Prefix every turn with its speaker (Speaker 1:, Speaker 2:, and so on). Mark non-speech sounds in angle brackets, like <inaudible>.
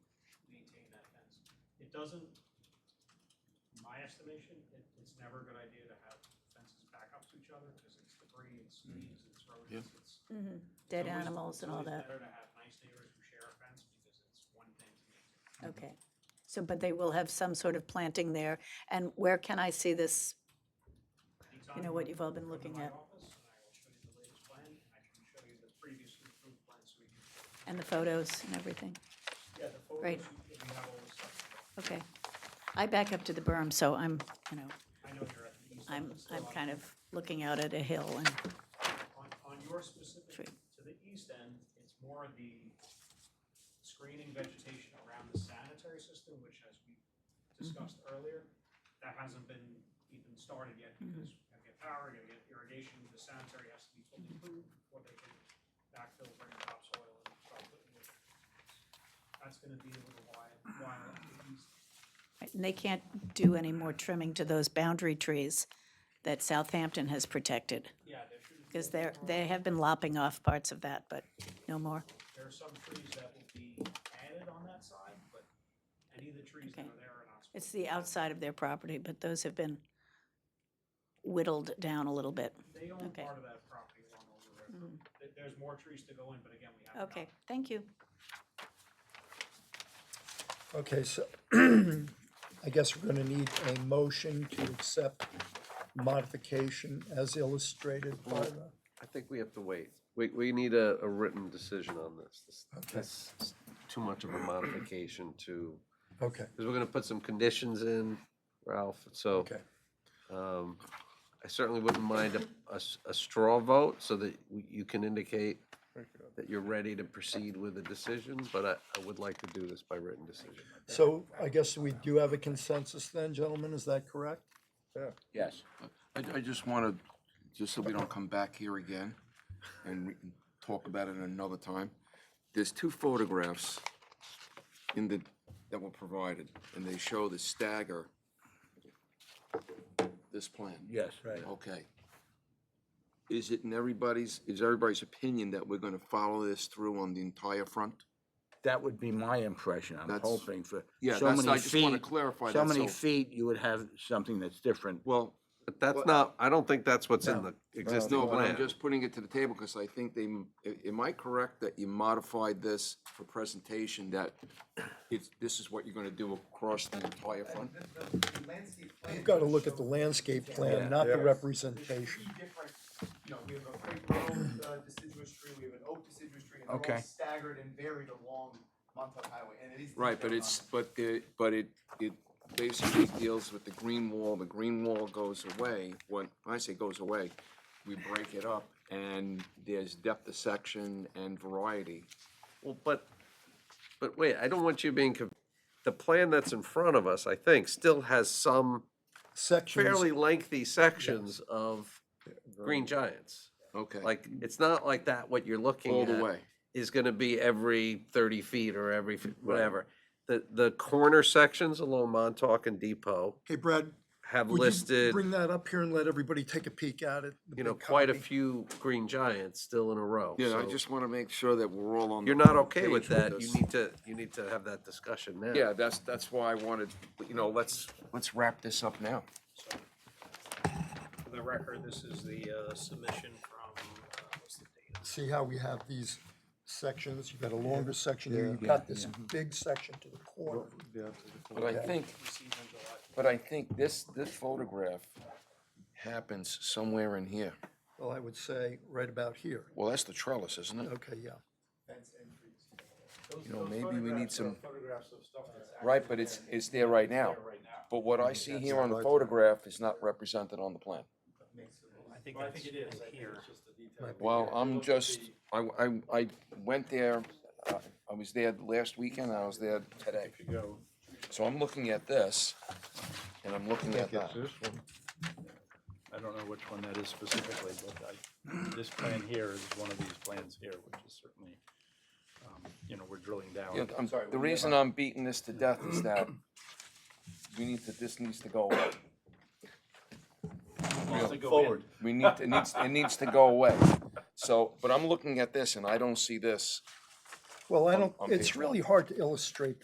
Speaker 1: It doesn't, my estimation, it, it's never a good idea to have fences back up to each other, because it's debris, it's weeds, it's rodents, it's. it's
Speaker 2: Dead
Speaker 1: always-
Speaker 2: animals and all that.
Speaker 1: It's always better to have nice neighbors who share a fence, because it's one thing to make two.
Speaker 2: Okay. So, but they will have some sort of planting there. And where can I see this?
Speaker 1: Anytime
Speaker 2: You know what you've all been
Speaker 1: come to
Speaker 2: looking
Speaker 1: my
Speaker 2: at.
Speaker 1: office, and I will show you the latest plan, and I can show you the previously approved plan, so we can,
Speaker 2: And the photos and everything?
Speaker 1: yeah, the photos,
Speaker 2: Great.
Speaker 1: you you have all the stuff.
Speaker 2: Okay. I back up to the berm, so I'm, you know,
Speaker 1: I know you're at the east.
Speaker 2: I'm,
Speaker 1: end, so
Speaker 2: I'm
Speaker 1: I'll-
Speaker 2: kind of looking out at a hill and,
Speaker 1: On, on your specific,
Speaker 2: Tree.
Speaker 1: to the east end, it's more of the screening vegetation around the sanitary system, which as we discussed
Speaker 2: Mm-hmm.
Speaker 1: earlier, that hasn't been even started yet
Speaker 2: Mm-hmm.
Speaker 1: because you gotta get power, you gotta get irrigation, the sanitary has to be fully
Speaker 2: Mm-hmm.
Speaker 1: approved before they can backfill, bring the topsoil and start putting it. That's gonna be a little while, while at the east.
Speaker 2: and they can't do any more trimming to those boundary trees that Southampton has protected.
Speaker 1: Yeah, there should.
Speaker 2: Because they're, they have been lopping off parts of that, but no more.
Speaker 1: There are some trees that will be added on that side, but any of the trees that
Speaker 2: Okay.
Speaker 1: are there are not.
Speaker 2: It's the outside of their property, but those have been whittled down a little bit.
Speaker 1: They own
Speaker 2: Okay. Mm-hmm.
Speaker 1: part of that property along Old River. There, there's more trees to go in, but again, we haven't.
Speaker 2: Okay,
Speaker 1: gotten-
Speaker 2: thank you.
Speaker 3: Okay, so <clears throat> I guess we're gonna need a motion to accept modification as illustrated by the,
Speaker 4: I think we have to wait. We, we need a, a written decision on this. This- This is too much of a modification to,
Speaker 3: okay,
Speaker 4: because we're gonna put some conditions in, Ralph, so
Speaker 3: okay.
Speaker 4: I certainly wouldn't mind a- a, s- a straw vote so that we- you can indicate that you're ready to proceed with a decision, but I, I would like to do this by written decision.
Speaker 3: So I guess we do have a consensus then, gentlemen, is that correct? Yeah.
Speaker 5: Yes.
Speaker 6: I, I just want to, just so we don't come back here again and re- talk about it another time. There's two photographs in the, that were provided, and they show the stagger, this plan.
Speaker 5: Yes.
Speaker 3: Right.
Speaker 6: Okay. Is it in everybody's, is everybody's opinion that we're going to follow this through on the entire front?
Speaker 5: That would be my impression. I'm
Speaker 6: That's-
Speaker 5: hoping for
Speaker 6: Yeah,
Speaker 5: so
Speaker 6: that's-
Speaker 5: many
Speaker 6: I just wanna
Speaker 5: feet-
Speaker 6: clarify
Speaker 5: So
Speaker 6: that,
Speaker 5: many
Speaker 6: so-
Speaker 5: feet, you would have something that's different.
Speaker 6: Well,
Speaker 4: But that's not, I don't think that's what's in the existing
Speaker 6: no, but I'm
Speaker 4: plan.
Speaker 6: just putting it to the table because I think they, a- am I correct that you modified this for presentation that it's, this is what you're going to do across the entire front?
Speaker 3: You've gotta look at the landscape plan, not the representation.
Speaker 7: There's three different, you know, we have a crepe grove uh, deciduous tree, we have an oak deciduous tree, and they're
Speaker 5: Okay.
Speaker 7: all staggered and varied along Montauk Highway, and it is.
Speaker 6: Right, but
Speaker 7: detailed
Speaker 6: it's,
Speaker 7: on-
Speaker 6: but the, but it, it basically deals with the green wall, the green wall goes away, when, when I say goes away, we break it up, and there's depth of section and variety.
Speaker 4: Well, but, but wait, I don't want you being, conf- the plan that's in front of us, I think, still has some fairly
Speaker 3: Sections,
Speaker 4: lengthy sections of Green Giants.
Speaker 6: Okay.
Speaker 4: Like, it's not like that, what you're looking at.
Speaker 6: All the way.
Speaker 4: Is gonna be every thirty feet or every, f- whatever. The, the corner sections along Montauk and Depot
Speaker 3: hey Brad,
Speaker 4: have
Speaker 3: would you
Speaker 4: listed,
Speaker 3: bring that up here and let everybody take a peek at it? the
Speaker 4: you know,
Speaker 3: big
Speaker 4: quite a
Speaker 3: copy?
Speaker 4: few Green Giants still in a row.
Speaker 6: Yeah, I
Speaker 4: so
Speaker 6: just want to make sure that we're all on. the
Speaker 4: You're not
Speaker 6: same
Speaker 4: okay with
Speaker 6: page
Speaker 4: that, you
Speaker 6: this.
Speaker 4: need to, you need to have that discussion now.
Speaker 6: Yeah, that's, that's why I wanted, you know, let's, let's wrap this up now.
Speaker 1: For the record, this is the uh, submission from, uh, what's the date?
Speaker 3: See how we have these sections, you've got a longer section here, you've got this big section to the corner.
Speaker 6: But I think,
Speaker 1: Received on July
Speaker 6: but I think this, this photograph happens somewhere in here.
Speaker 3: Well, I would say right about here,
Speaker 6: Well, that's the trellis, isn't it?
Speaker 3: okay, yeah.
Speaker 7: Fence and trees.
Speaker 6: You know, maybe we need some,
Speaker 7: Photographs of stuff that's.
Speaker 6: right, but it's, it's there right now.
Speaker 7: actually Right now.
Speaker 6: But what I see here on the photograph is not represented on the plan.
Speaker 1: I think I think it is here.
Speaker 6: Well, I'm just, I, I, I went there, uh, I was there last weekend, I was there today. So I'm looking at this, and I'm looking at that.
Speaker 8: I don't know which one that is specifically, but I, this plan here is one of these plans here, which is certainly, um, you know, we're drilling down.
Speaker 6: Yeah, I'm, the reason I'm beating this to death is that <clears throat> we need to, this needs to go away.
Speaker 8: Wants to go in.
Speaker 6: We need, to- it needs, it needs to go away. So, but I'm looking at this and I don't see this.
Speaker 3: Well, I don't,
Speaker 6: on
Speaker 3: it's
Speaker 6: page
Speaker 3: really hard to illustrate